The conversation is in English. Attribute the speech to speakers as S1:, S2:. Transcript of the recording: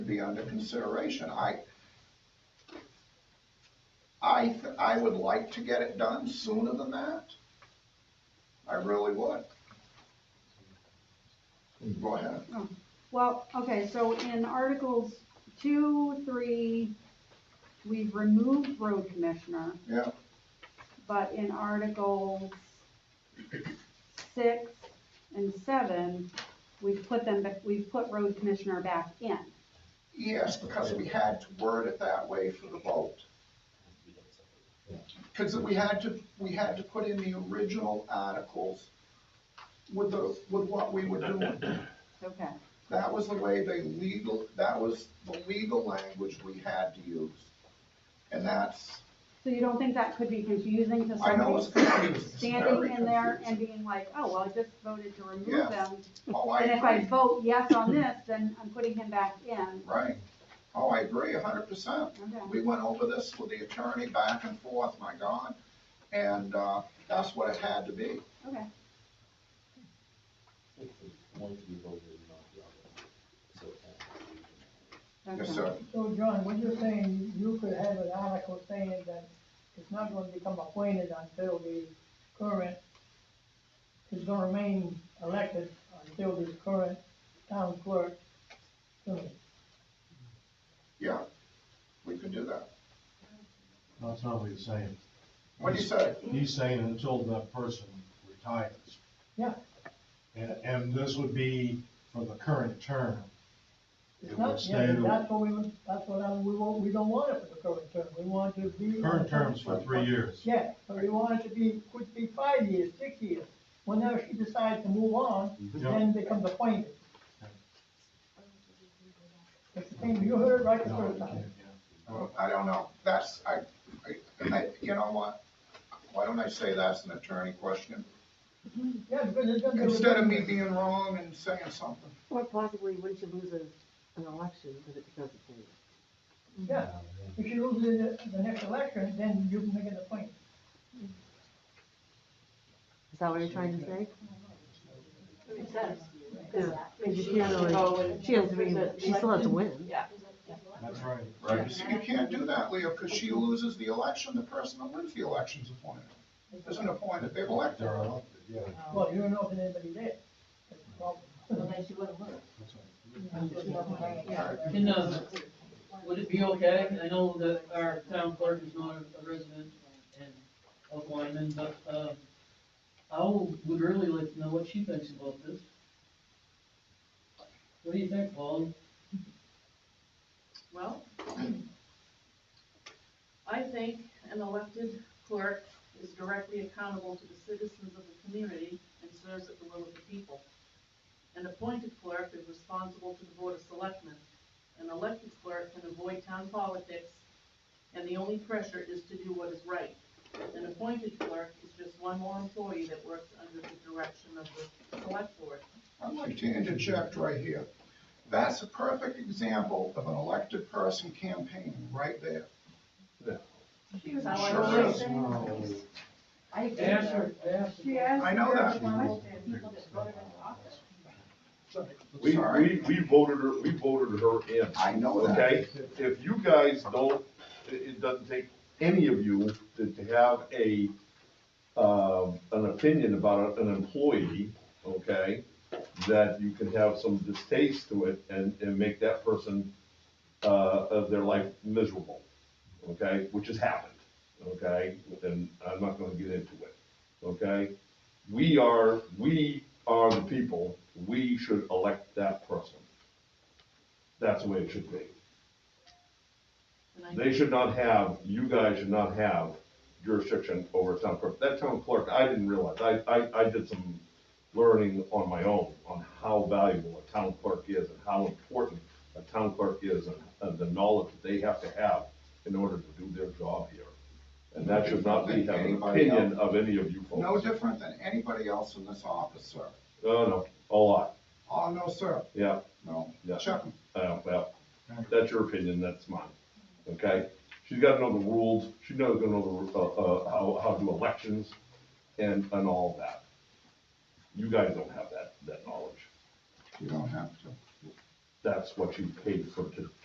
S1: be under consideration. I, I, th- I would like to get it done sooner than that. I really would. Go ahead.
S2: Well, okay, so in Articles two, three, we've removed road commissioner.
S1: Yeah.
S2: But in Articles six and seven, we've put them, ba- we've put road commissioner back in.
S1: Yes, because we had to word it that way for the vote. Because we had to, we had to put in the original articles with the, with what we were doing.
S2: Okay,
S1: That was the way they legal, that was the legal language we had to use. And that's,
S2: so you don't think that could be confusing to
S1: I know it's
S2: somebody
S1: confusing, it's very
S2: standing in there and
S1: confusing.
S2: being like, oh, well, I just voted to remove
S1: Yes.
S2: them.
S1: Oh, I
S2: And if I
S1: agree,
S2: vote yes on this, then I'm putting him back in.
S1: right. Oh, I agree a hundred percent.
S2: Okay.
S1: We went over this with the attorney back and forth, my God, and, uh, that's what it had to be.
S2: Okay.
S3: One to be voted and not the other. So it can't be.
S1: Yes,
S2: okay.
S1: sir.
S4: So John, what you're saying, you could have an article saying that it's not gonna become appointed until the current, is gonna remain elected until the current town clerk. finishes.
S1: Yeah, we could do that.
S5: That's not what he's saying.
S1: What do you say?
S5: He's saying until that person retires.
S4: Yeah.
S5: And, and this would be for the current term.
S4: It's
S5: It
S4: not-
S5: would
S4: yeah,
S5: stay the-
S4: That's what we, would- that's what I, we want, we don't want it for the current term, we want it to be.
S5: Current term's for three years.
S4: Yeah, but we want it to be, could be five years, six years, whenever she decides to move on,
S5: Yeah.
S4: then becomes appointed. It's the same, you heard it right the
S5: No,
S4: first
S5: you
S4: time.
S5: can't, yeah.
S1: I don't know. That's, I, I- I, you know what? Why don't I say that's an attorney question?
S4: Yeah, because it's gonna be.
S1: Instead of me being wrong and saying something.
S6: Or possibly, wouldn't you lose a, an election because it becomes a thing?
S4: Yeah, if you lose the, the next election, then you can make an appointment.
S6: Is that what you're trying to say?
S7: It says.
S6: Yeah. Because she has to, she has to be, she still has to win.
S7: Yeah.
S5: That's right.
S1: You see, You can't do that, Leo, because she loses the election, the person that wins the election's appointed. Isn't appointed, they've elected
S5: They're
S1: her.
S5: out, yeah,
S7: Oh.
S4: Well, you don't know if anybody did. That's the problem.
S7: Unless you wanna work.
S5: that's right.
S8: Can, uh, would it be okay, I know that our town clerk is not a resident and of Lyman, but, uh, I would really like to know what she thinks about this. What do you think, Paul?
S7: Well, I think an elected clerk is directly accountable to the citizens of the community and serves at the will of the people. An appointed clerk is responsible to the board of selectmen. An elected clerk can avoid town politics, and the only pressure is to do what is right. An appointed clerk is just one more employee that works under the direction of the select board.
S1: I'd like to interject right here. That's a perfect example of an elected person campaigning right there.
S7: She was.
S1: Sure is.
S8: Ask her, ask her.
S2: She asked
S1: I know
S2: her
S1: that.
S2: question.
S9: We,
S1: Sorry.
S9: we, we voted her, we voted her in,
S1: I know that.
S9: okay? If you guys don't, it, it doesn't take any of you to, to have a, um, an opinion about an employee, okay? That you can have some distaste to it and, and make that person, uh, of their life miserable, okay? Which has happened, okay? And I'm not gonna get into it, okay? we are, we are the people, we should elect that person. That's the way it should be.
S7: And I-
S9: They should not have, you guys should not have jurisdiction over a town clerk. That town clerk, I didn't realize, I, I, I did some learning on my own on how valuable a town clerk is and how important a town clerk is and, and the knowledge that they have to have in order to do their job here. And that should not be have an opinion of any of you
S1: No
S9: folks.
S1: different than anybody else in this office, sir.
S9: No, no, a lot,
S1: Oh, no, sir.
S9: yeah.
S1: No.
S9: Yeah.
S1: Chuck,
S9: Uh, well, that's your opinion, that's mine, okay? She's gotta know the rules, she knows gonna know the, uh, uh, how, how to do elections and, and all that. You guys don't have that, that knowledge.
S1: you don't have to.
S9: That's what you paid for to